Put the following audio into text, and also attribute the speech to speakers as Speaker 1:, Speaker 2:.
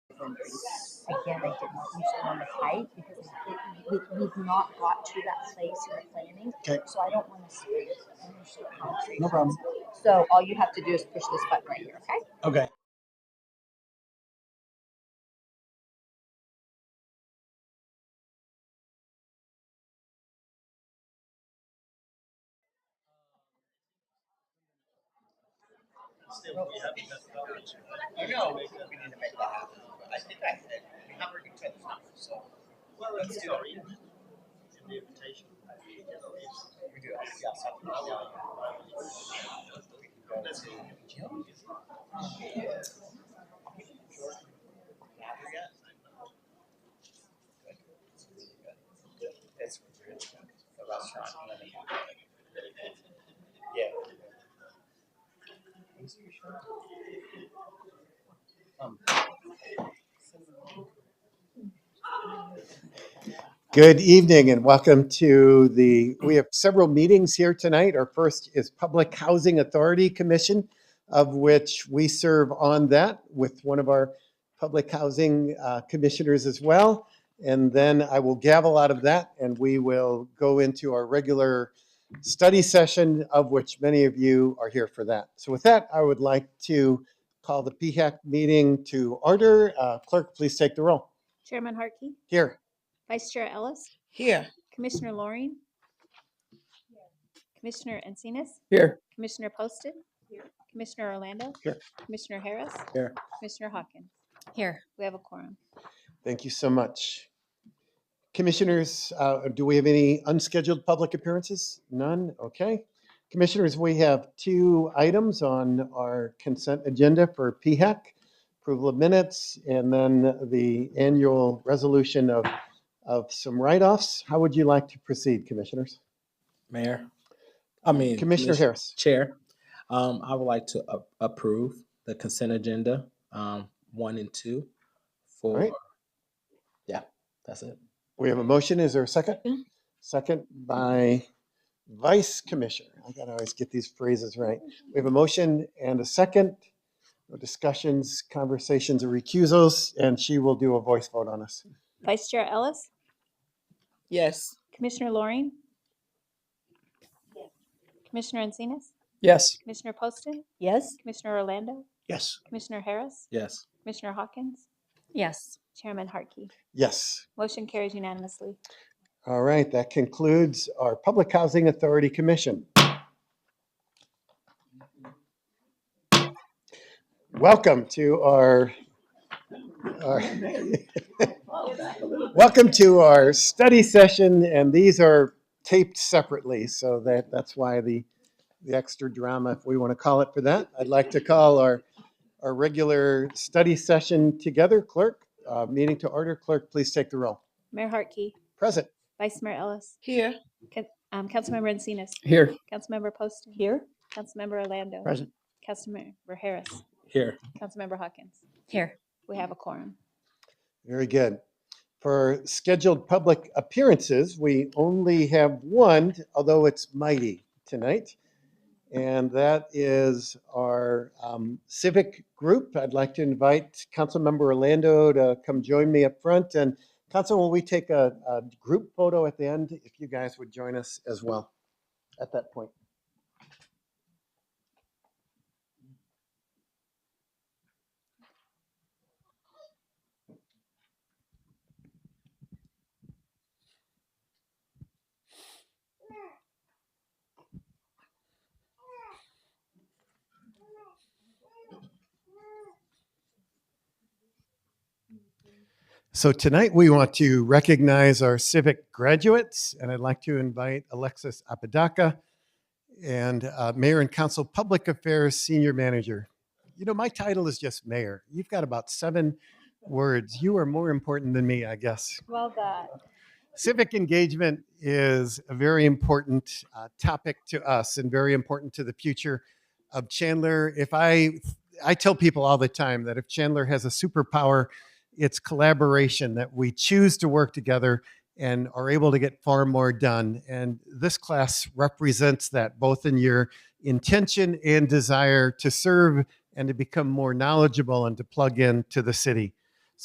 Speaker 1: boundaries. Again, I did not use the one with height because it, we, we've not got to that place in the planning.
Speaker 2: Okay.
Speaker 1: So I don't want to see it. I'm just so conscious.
Speaker 2: No problem.
Speaker 1: So all you have to do is push this button right here, okay?
Speaker 2: Okay.
Speaker 3: Still, we have the best coverage. I know, we we need to make that happen, but I think I said, we have our each other's numbers, so. Well, let's do it. It's an invitation. We do, yeah. Let's go. That's really good. The restaurant. Yeah.
Speaker 2: Good evening and welcome to the, we have several meetings here tonight. Our first is Public Housing Authority Commission, of which we serve on that with one of our public housing uh, commissioners as well. And then I will gavel out of that and we will go into our regular study session, of which many of you are here for that. So with that, I would like to call the PHAC meeting to order. Uh, Clerk, please take the roll.
Speaker 4: Chairman Harkey,
Speaker 2: Here.
Speaker 4: Vice Chair Ellis,
Speaker 5: Here.
Speaker 4: Commissioner Loring, Commissioner Encinas,
Speaker 5: Here.
Speaker 4: Commissioner Poston, Commissioner Orlando,
Speaker 2: Here.
Speaker 4: Commissioner Harris,
Speaker 2: Here.
Speaker 4: Commissioner Hawkins.
Speaker 5: Here.
Speaker 4: We have a quorum.
Speaker 2: Thank you so much. Commissioners, uh, do we have any unscheduled public appearances? None? Okay. Commissioners, we have two items on our consent agenda for PHEC, approval of minutes, and then the annual resolution of, of some write-offs. How would you like to proceed, Commissioners?
Speaker 6: Mayor, I mean.
Speaker 2: Commissioner
Speaker 6: Commis-
Speaker 2: Harris?
Speaker 6: Chair, um, I would like to a- approve the consent agenda, um, one and two for,
Speaker 2: right.
Speaker 6: yeah, that's it.
Speaker 2: We have a motion. Is there a second? Second by Vice Commissioner. I gotta always get these phrases right. We have a motion and a second. No Discussions, conversations, or recusals, and she will do a voice vote on us.
Speaker 4: Vice Chair Ellis,
Speaker 5: Yes.
Speaker 4: Commissioner Loring, Commissioner Encinas,
Speaker 5: Yes.
Speaker 4: Commissioner Poston,
Speaker 5: Yes.
Speaker 4: Commissioner Orlando,
Speaker 2: Yes.
Speaker 4: Commissioner Harris,
Speaker 6: Yes,
Speaker 4: Commissioner Hawkins,
Speaker 5: Yes.
Speaker 4: Chairman Harkey.
Speaker 2: Yes.
Speaker 4: Motion carries unanimously.
Speaker 2: All right, that concludes our Public Housing Authority Commission. Welcome to our, our- welcome to our study session, and these are taped separately, so that, that's why the, the extra drama, if we want to call it for that. I'd like to call our, our regular study session together. Clerk, uh, meeting to order. Clerk, please take the roll.
Speaker 4: Mayor Harkey,
Speaker 2: Present.
Speaker 4: Vice Mayor Ellis,
Speaker 5: Here.
Speaker 4: um, Councilmember Encinas,
Speaker 5: Here.
Speaker 4: Councilmember Poston. Here. Councilmember Orlando.
Speaker 5: Present.
Speaker 4: Councilmember Harris.
Speaker 6: here,
Speaker 4: Councilmember Hawkins.
Speaker 5: Here.
Speaker 4: We have a quorum.
Speaker 2: Very good. For scheduled public appearances, we only have one, although it's mighty tonight. And that is our um, civic group. I'd like to invite Councilmember Orlando to come join me up front. And Council, will we take a, a group photo at the end? If you guys would join us as well at that point. So tonight we want to recognize our civic graduates, and I'd like to invite Alexis Apodaca and uh, Mayor and Council Public Affairs Senior Manager. You know, my title is just mayor. You've got about seven words. You are more important than me, I guess.
Speaker 4: Well, God.
Speaker 2: Civic engagement is a very important uh, topic to us and very important to the future of Chandler. If I, I tell people all the time that if Chandler has a superpower, it's collaboration, that we choose to work together and are able to get far more done. And this class represents that both in your intention and desire to serve and to become more knowledgeable and to plug in to the city.